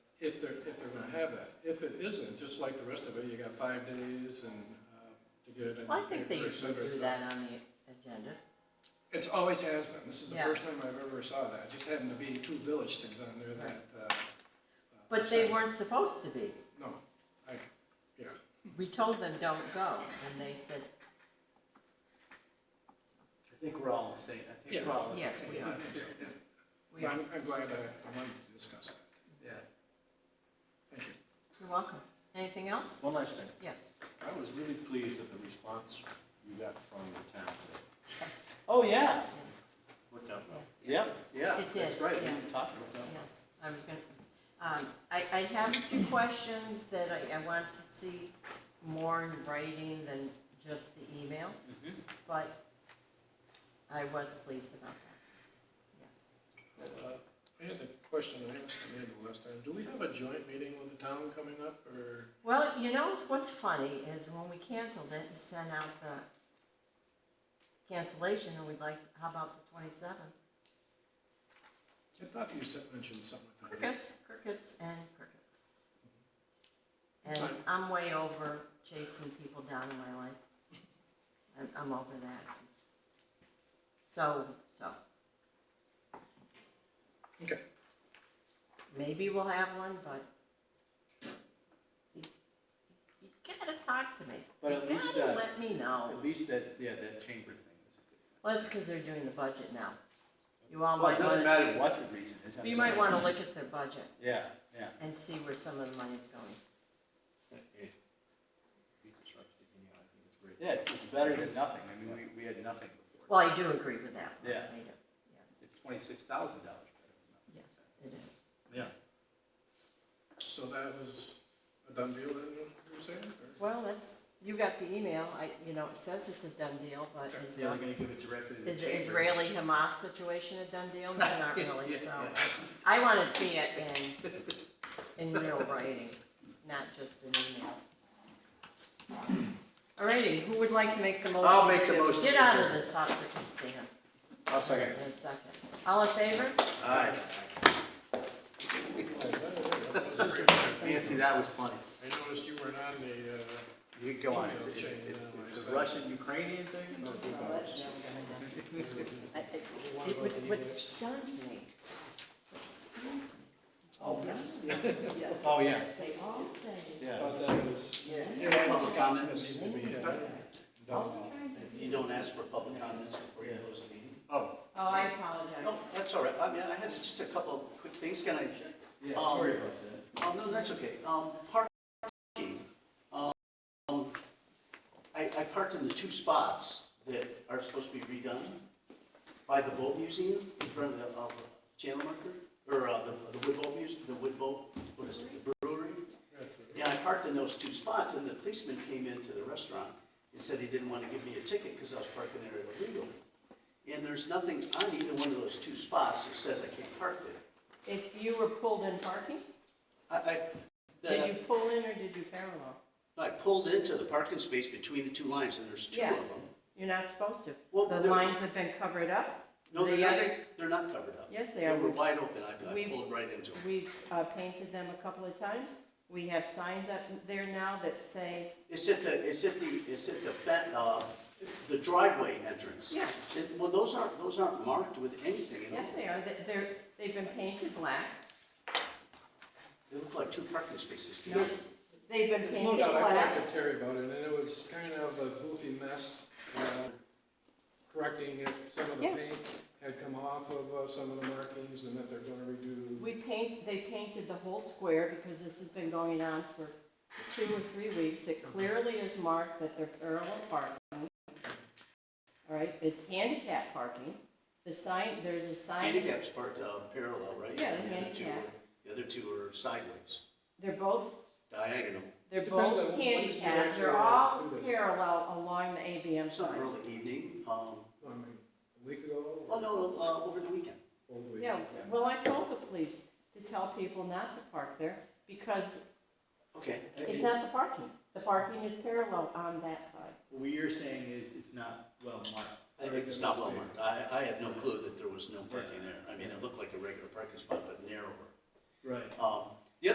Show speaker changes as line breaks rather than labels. if they're, if they're gonna have that. If it isn't, just like the rest of it, you got five days and, uh, to get it. in
Well, I think they
paper, et
usually
cetera, et
do
cetera.
that on the agendas.
It's always has been. This is the
Yeah.
first time I've ever saw that. It Just happened to be two village things on there that, uh. uh,
But they
said-
weren't supposed to be.
No, I, yeah,
We told them, don't go, and they said,
I think we're all the same, I think we're all.
yes, we are. We
But
are.
I'm, I'm glad I, I wanted to discuss that.
Yeah.
Thank you.
You're welcome. Anything else?
One last thing.
Yes.
I was really pleased at the response you got from the town today.
Oh, yeah,
Worked out well.
yeah, yeah.
It
That's
did,
right, we didn't
yes.
talk about that.
Yes, I was gonna, um, I, I have a few questions that I, I want to see more in writing than just the email,
Mhm.
but I was pleased about that.
Uh, I had a question I asked Amanda last time. Do we have a joint meeting with the town coming up or?
Well, you know, what's funny is when we canceled it and sent out the cancellation, and we'd like, how about the twenty-seventh?
I thought you said, mentioned something like that.
Crickets, crickets, and crickets. And I'm way over chasing people down in my life. I'm, I'm over that. So, so,
Okay,
maybe we'll have one, but you you gotta talk to me.
But
You
at least,
gotta
uh,
let me know.
At least that, yeah, that chamber thing was a good.
Well, that's because they're doing the budget now. You all
Well, it
might
doesn't
wanna,
matter what the reason is. I
Oh, you
mean,
might wanna look at their budget
Yeah, yeah.
and see where some of the money's going.
Beats the sharp sticking out. I think it's great.
Yeah, it's, it's better than nothing. I mean, we, we had nothing before.
Well, I do agree with that.
Yeah.
I do, yes,
It's twenty-six thousand dollars better
yes, it is.
than nothing.
so that was a done deal then, you were saying? or-
Well, that's, you got the email, I, you know, it says it's a done deal, but is
Yeah, they're
the,
gonna give it directly to the
is the
chamber.
Israeli Hamas situation a done deal? No, not really,
Yeah,
so.
yeah.
I wanna see it in, in real writing, not just an email. Alrighty, who would like to make the motion?
I'll make the
to
motion.
Get out of this toxic stand
I'll second.
in a second. All in favor?
Aye. Nancy, that was funny.
I noticed you weren't on the, uh,
You can go on. It's, it's,
Email chain,
it's
uh,
the Russian Ukrainian thing? or-
I- I- it- What what stuns me, what stuns me,
Oh, yes. Oh, yeah,
they all say
yeah.
Public
needs
comments,
to be, uh, done.
you don't ask for public comments before you close the meeting.
Oh,
Oh, I apologize.
No, that's all right, I mean, I had just a couple of quick things, can I?
yeah,
Um,
sorry about that.
Um, no, that's okay, um, parking, um, I, I parked in the two spots that are supposed to be redone by the boat museum, in front of the, um, channel marker, or, uh, the, the wood boat museum, the wood boat, what is it, the brewery? And I parked in those two spots, and the policeman came into the restaurant and said he didn't want to give me a ticket because I was parking there illegally. And there's nothing on either one of those two spots that says I can't park there.
If you were pulled in parking,
I, I,
did you
that,
pull in or did you parallel?
I pulled into the parking space between the two lines, and there's two of
Yeah.
them.
You're not supposed to.
Well,
The
they're-
lines have been covered up.
No,
The
they're not,
other-
they're not covered up.
Yes, they are.
They were wide open, I, I
We've-
pulled right into them.
We've uh, painted them a couple of times. We have signs up there now that say,
It's at the, it's at the, it's at the, fa- uh, the driveway entrance.
Yeah.
It- Well, those aren't, those aren't marked with anything at all.
yes, they are, They- they're, they've been painted black.
They look like two parking spaces to
No,
me.
They've been
There's No
painted
doubt, I talked
black.
to Terry about it, and it was kind of a goofy mess, uh, correcting if some of the
Yeah.
paint had come off of uh, some of the markings, and that they're gonna redo.
We paint, they painted the whole square because this has been going on for two or three weeks. It clearly is marked that they're parallel parking. All right, it's handicap parking. The sign, there's a sign.
Handicap's parked uh, parallel, right?
Yeah, the
And other two
handicap.
are- The other two are sideways,
They're both,
diagonal.
they're
Depends on
both
what you
handicapped,
direct
they're
your-
all
who is.
parallel along the ABM
Some
sign.
early evening, um,
I mean, a week ago,
oh,
or
no, uh, over the weekend.
over the week.
Yeah, well, I told the police to tell people not to park there because
Okay.
it's not the parking. The parking is parallel on that side.
What you're saying is it's not well marked.
I think It's not well marked. I, I had no clue that there was no parking there. I mean, it looked like a regular parking spot, but narrower.
Right.
Um,